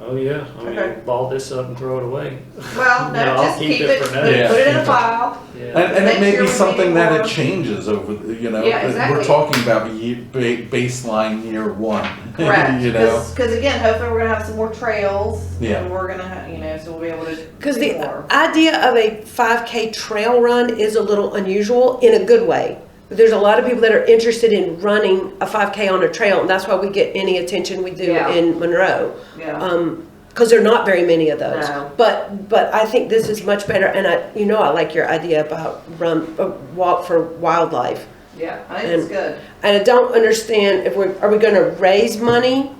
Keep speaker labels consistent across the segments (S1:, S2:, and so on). S1: Oh, yeah, I
S2: Okay.
S1: mean, ball this up and throw it away.
S2: Well, no,
S1: No, I'll
S2: just
S1: keep
S2: keep
S1: it
S2: it,
S1: for another-
S2: put it in
S1: Yeah.
S2: a file.
S1: Yeah,
S2: That-
S3: And, and it
S2: Next
S3: may
S2: year
S3: be
S2: we'll
S3: something
S2: need
S3: that
S2: more.
S3: it changes over, the you know,
S2: Yeah,
S3: but we're
S2: exactly.
S3: talking about ye- ba- baseline year one.
S2: Correct.
S3: You know,
S2: Because again, hopefully we're gonna have some more trails.
S3: Yeah.
S2: And we're gonna, ha- you know, so we'll be able to.
S4: Because
S2: do
S4: the
S2: more.
S4: idea of a 5K trail run is a little unusual in a good way. There's a lot of people that are interested in running a 5K on a trail, and that's why we get any attention we do
S2: Yeah.
S4: in Monroe.
S2: Yeah.
S4: um, Because there are not very many of those.
S2: No.
S4: But, but I think this is much better, and I, you know, I like your idea about run, uh, walk for wildlife.
S2: Yeah, I think it's
S4: and-
S2: good.
S4: And I don't understand if we're, are we gonna raise money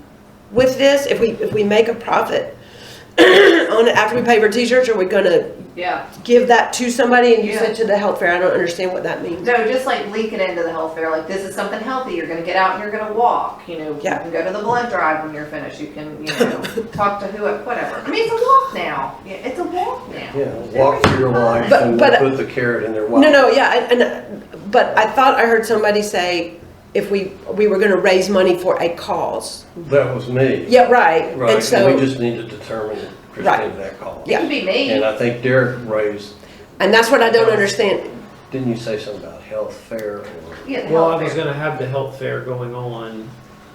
S4: with this? If we, if we make a profit on it after we pay for t-shirts, are we gonna
S2: Yeah.
S4: give that to somebody and use
S2: Yeah.
S4: it to the health fair? I don't understand what that means.
S2: No, just like leak it into the health fair, like this is something healthy, you're gonna get out and you're gonna walk, you know, you
S4: Yeah.
S2: can go to the blood drive when you're finished, you can, you know, talk to who, whatever. I mean, it's a walk now, yeah, it's a walk now.
S5: Yeah, walk for your life
S4: But-
S5: and
S4: but-
S5: we'll put the carrot in their wallet.
S4: No, no, yeah, and, and, but I thought I heard somebody say if we, we were gonna raise money for a cause.
S5: That was me.
S4: Yeah, right.
S5: Right,
S4: And
S5: and we
S4: so,
S5: just need to determine
S4: Right.
S5: Christine that call.
S2: It could be
S5: And
S2: me,
S5: I think Derek raised,
S4: and that's what I don't understand.
S5: didn't you say something about health fair or?
S2: yeah, the
S1: well, I
S2: health
S1: was
S2: fair.
S1: gonna have the health fair going on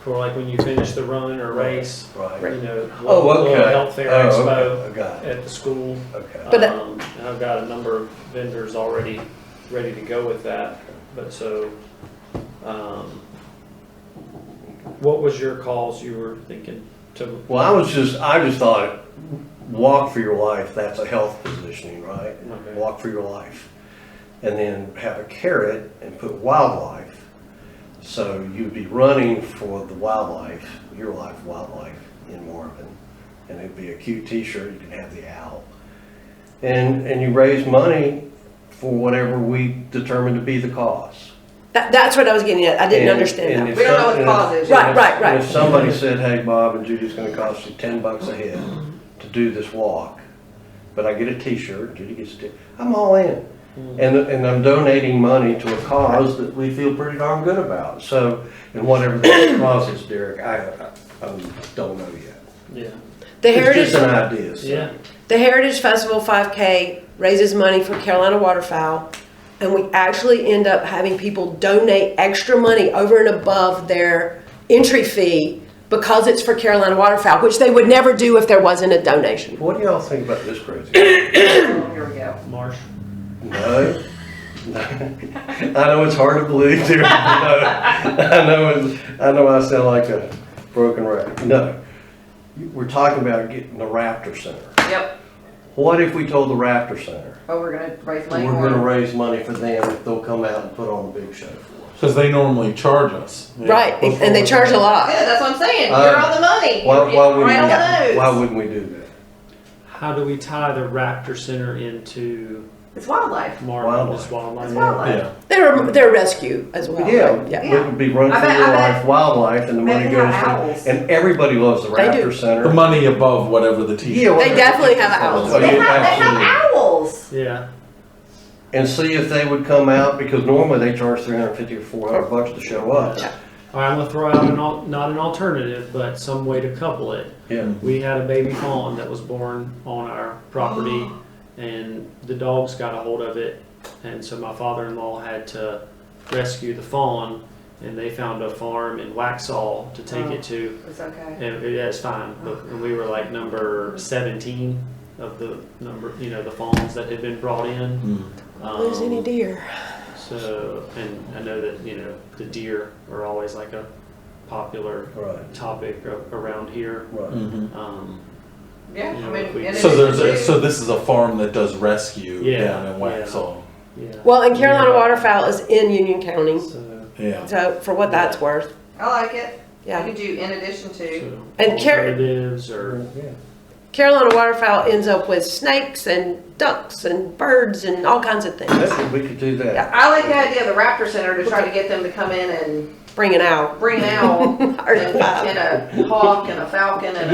S1: for like when you finish the run or race, you
S5: Right.
S1: know, little-
S5: Oh,
S1: little
S5: okay.
S1: health fair
S5: Oh, okay.
S1: expo
S5: I got it,
S1: at the school.
S5: okay.
S4: But that-
S1: Um, and I've got a number of vendors already ready to go with that, but so, um, what was your cause you were thinking to?
S5: Well, I was just, I just thought, walk for your life, that's a health positioning, right?
S1: Okay.
S5: Walk for your life. And then have a carrot and put wildlife. So you'd be running for the wildlife, your life, wildlife in Marvin. And it'd be a cute t-shirt, you can have the owl. And, and you raise money for whatever we determine to be the cause.
S4: That, that's what I was getting at. I didn't
S5: And-
S4: understand
S5: and
S4: that.
S5: if
S2: We don't know what
S5: some-
S2: the
S5: and
S2: cause
S5: if-
S2: is.
S5: and
S4: Right,
S5: if-
S4: right, right.
S5: and If somebody said, hey, Bob and Judy's gonna cost you ten bucks a head to do this walk, but I get a t-shirt, Judy gets a t, I'm all in.
S4: Hmm.
S5: And, and I'm donating money to a cause that we feel pretty darn good about, so, and whatever the cause is, Derek, I, I I don't know yet.
S1: Yeah,
S4: The
S5: It's
S4: Heritage,
S5: just an idea, so.
S1: yeah,
S4: the Heritage Festival 5K raises money for Carolina Waterfowl, and we actually end up having people donate extra money over and above their entry fee because it's for Carolina Waterfowl, which they would never do if there wasn't a donation.
S5: What do y'all think about this crazy?
S2: Oh, Here we go.
S1: Marsh.
S5: No? No. I know it's hard to believe, Derek, I know, I know, it's- I know I sound like a broken record, no. We're talking about getting the Raptor Center.
S2: Yep,
S5: What if we told the Raptor Center,
S2: oh, we're gonna raise money
S5: we're
S2: for
S5: gonna
S2: it.
S5: raise money for them, if they'll come out and put on a big show for us?
S3: because they normally charge us. you know,
S4: Right,
S3: before-
S4: and they charge a lot.
S2: Yeah, that's what I'm saying,
S5: Uh,
S2: you're on the money,
S5: Why,
S2: you're
S5: why
S2: right on
S5: wouldn't,
S2: the
S5: we- why
S2: nose.
S5: wouldn't we do that?
S1: How do we tie the Raptor Center into
S2: It's wildlife,
S1: Marvin's
S5: Wildlife.
S1: wildlife?
S2: it's wildlife.
S3: Yeah,
S4: They're, they're rescue as well. right?
S5: Yeah,
S4: Yeah.
S5: it would be run
S2: I
S5: for
S2: bet-
S5: your
S2: I bet-
S5: life, wildlife, and the
S2: bet
S5: money
S2: they have
S5: goes
S2: owls.
S5: to, and everybody loves the
S4: They do.
S5: Raptor Center.
S3: the money above whatever the t-shirt.
S5: Yeah,
S4: They definitely have owls.
S5: Oh,
S2: They have,
S5: yeah,
S2: they have
S5: absolutely.
S2: owls.
S1: Yeah,
S5: and see if they would come out, because normally they charge three hundred fifty or four hundred bucks to show up.
S1: all right, I'm gonna throw out an al- not an alternative, but some way to couple it.
S5: Yeah.
S1: We had a baby fawn that was born on our property, and the dogs got a hold of it, and so my father-in-law had to rescue the fawn, and they found a farm in Waxhaw to take
S4: Oh.
S1: it to,
S2: It's okay.
S1: and it- yeah, it's fine. But and we were like number seventeen of the number, you know, the fawns that had been brought in.
S3: Mm.
S4: Lose Oh, any
S1: Um,
S4: deer.
S1: So, and I know that, you know, the deer are always like a popular
S5: Right,
S1: topic a- around here.
S5: right.
S3: Mhm.
S1: Um, Yeah,
S2: Yeah, I mean.
S1: if we-
S2: and
S3: So
S2: it's
S3: there's a,
S2: blue.
S3: so this is a farm that does rescue
S1: Yeah,
S3: down in
S1: yeah.
S3: Waxhaw.
S1: yeah.
S4: Well, and Carolina Waterfowl is in Union County,
S1: So,
S3: Yeah,
S4: so for what that's worth,
S2: I like it. You
S4: yeah.
S2: could do in addition to.
S1: so
S4: And car-
S1: alternatives or
S5: Mm.
S4: Carolina Waterfowl ends up with snakes and ducks and birds and all kinds of things.
S5: That's, we could do that.
S2: I like the idea of the Raptor Center to try to get them to come in and
S4: Bring it out.
S2: bring an owl
S4: Or
S2: and,
S4: five.
S2: and a hawk and a falcon and a.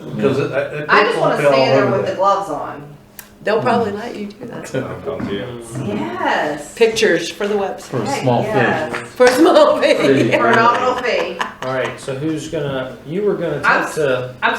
S5: Yeah, because it, it. it
S2: I just want to
S5: fell
S2: stand there
S5: over
S2: with the
S5: that.
S2: gloves on.
S4: They'll probably let you do that.
S1: um,
S2: Yes.
S4: Pictures for the website.
S3: for a
S2: Heck
S3: small fish.
S2: yes.
S4: For a small baby.
S2: For a nominal fee.
S1: all right so who's gonna you were gonna
S2: I'm
S1: talk to